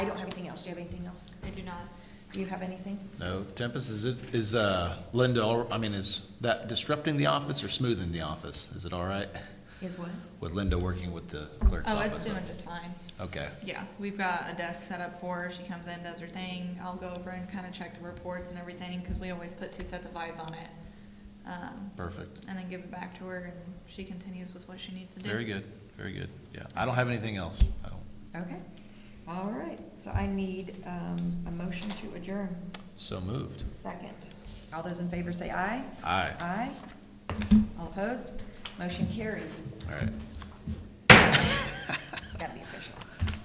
you have anything else? I do not. Do you have anything? No, Tempest, is it, is uh, Linda, al- I mean, is that disrupting the office or smoothing the office? Is it all right Is what? with Linda working with the clerk's Oh, it's office? doing just fine. Okay, Yeah, we've got a desk set up for her. She comes in, does her thing. I'll go over and kind of check the reports and everything, because we always put two sets of eyes on it. Um, perfect. and then give it back to her, and she continues with what she needs to do. Very good, very good. Yeah, I don't have anything else. I don't. Okay. All right, so I need um, a motion to adjourn. So moved. Second. All those in favor say aye. Aye. Aye. All opposed? Motion carries. All right.